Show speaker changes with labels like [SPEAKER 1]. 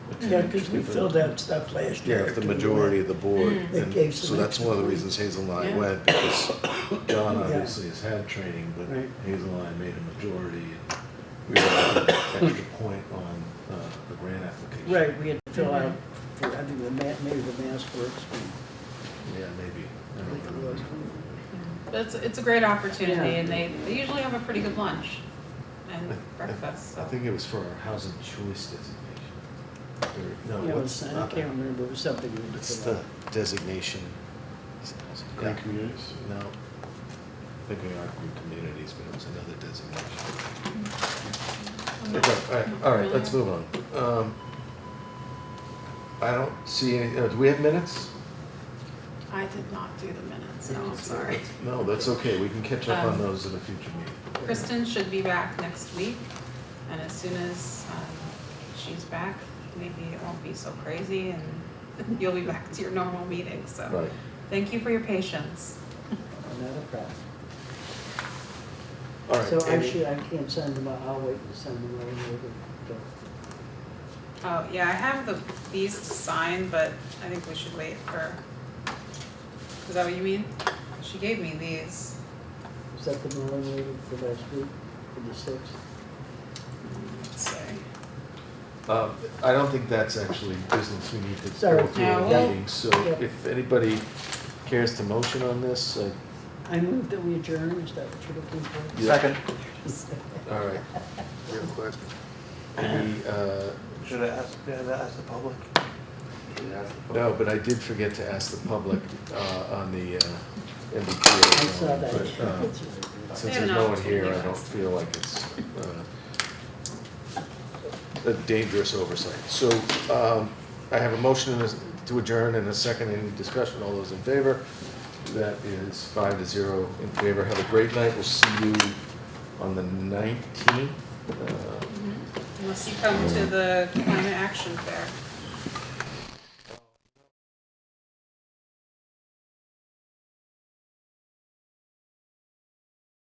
[SPEAKER 1] Yeah, because we filled out stuff last
[SPEAKER 2] Yeah,
[SPEAKER 1] year.
[SPEAKER 2] if the
[SPEAKER 1] to-
[SPEAKER 2] majority of the board,
[SPEAKER 3] Mm.
[SPEAKER 1] They
[SPEAKER 2] and
[SPEAKER 1] gave
[SPEAKER 2] so
[SPEAKER 1] some
[SPEAKER 2] that's one of the
[SPEAKER 1] extra
[SPEAKER 2] reasons Hazel and I
[SPEAKER 4] Yeah.
[SPEAKER 2] went, because John
[SPEAKER 1] Yeah.
[SPEAKER 2] obviously has had training, but
[SPEAKER 3] Right.
[SPEAKER 2] Hazel and I made a majority, and we were an extra point on uh, the grant application.
[SPEAKER 3] Right, we had to fill out for, I think, the ma, maybe the Mass Works, we-
[SPEAKER 2] Yeah, maybe. I
[SPEAKER 3] I
[SPEAKER 2] don't
[SPEAKER 3] think it
[SPEAKER 2] remember.
[SPEAKER 3] was.
[SPEAKER 4] That's, it's a great opportunity
[SPEAKER 3] Yeah.
[SPEAKER 4] and they, they usually have a pretty good lunch and breakfast,
[SPEAKER 2] I
[SPEAKER 4] so.
[SPEAKER 2] think it was for our housing choice designation. Or-
[SPEAKER 3] Yeah,
[SPEAKER 2] No,
[SPEAKER 3] it
[SPEAKER 2] it's
[SPEAKER 3] was- I
[SPEAKER 2] not
[SPEAKER 3] can't
[SPEAKER 2] that.
[SPEAKER 3] remember, it was something we had to
[SPEAKER 2] It's
[SPEAKER 3] fill
[SPEAKER 2] the
[SPEAKER 3] out.
[SPEAKER 2] designation.
[SPEAKER 5] Green
[SPEAKER 2] Yeah.
[SPEAKER 5] communities?
[SPEAKER 2] No, I think we are group communities, but it was another designation.
[SPEAKER 4] I'm not-
[SPEAKER 2] Okay, all right, all right, let's move on. Um, I don't see any, uh, do we have minutes?
[SPEAKER 4] I did not do the minutes, no, I'm sorry.
[SPEAKER 2] No, that's okay, we can catch up on
[SPEAKER 4] Um,
[SPEAKER 2] those in a future meeting.
[SPEAKER 4] Kristen should be back next week, and as soon as um, she's back, maybe it won't be so crazy, and you'll be back to your normal meeting, so.
[SPEAKER 2] Right,
[SPEAKER 4] Thank you for your patience.
[SPEAKER 3] Not a problem.
[SPEAKER 2] all right.
[SPEAKER 3] So I
[SPEAKER 2] any-
[SPEAKER 3] should, I can't send them, out. I'll wait to send them out later. but-
[SPEAKER 4] Oh, yeah, I have the, these to sign, but I think we should wait for, is that what you mean? She gave me these.
[SPEAKER 3] Is that the Malone meeting for last week, for the sixth?
[SPEAKER 4] Let's see.
[SPEAKER 2] Um, I don't think that's actually business we need to go
[SPEAKER 3] Sorry.
[SPEAKER 2] through in
[SPEAKER 4] No, we'll-
[SPEAKER 2] meetings, so
[SPEAKER 3] Yep.
[SPEAKER 2] if anybody cares to motion on this, uh, I.
[SPEAKER 3] I moved that we adjourn, is that what you're looking for?
[SPEAKER 2] Second. All right, real quick. Any, uh,
[SPEAKER 6] Should I ask, should I ask the public?
[SPEAKER 2] No, but I did forget to ask the public uh, on the uh, MBTA.
[SPEAKER 3] I saw that.
[SPEAKER 2] but, uh,
[SPEAKER 3] That's really good.
[SPEAKER 2] Since
[SPEAKER 4] They're
[SPEAKER 2] there's no
[SPEAKER 4] not
[SPEAKER 2] one here, I don't
[SPEAKER 4] asked.
[SPEAKER 2] feel like it's uh, a dangerous oversight. So um, I have a motion and a- to adjourn and a second. Any discussion? All those in favor? That is five to zero in favor. Have a great night. We'll see you on the 19th. Uh,
[SPEAKER 4] Unless you come to the climate action fair.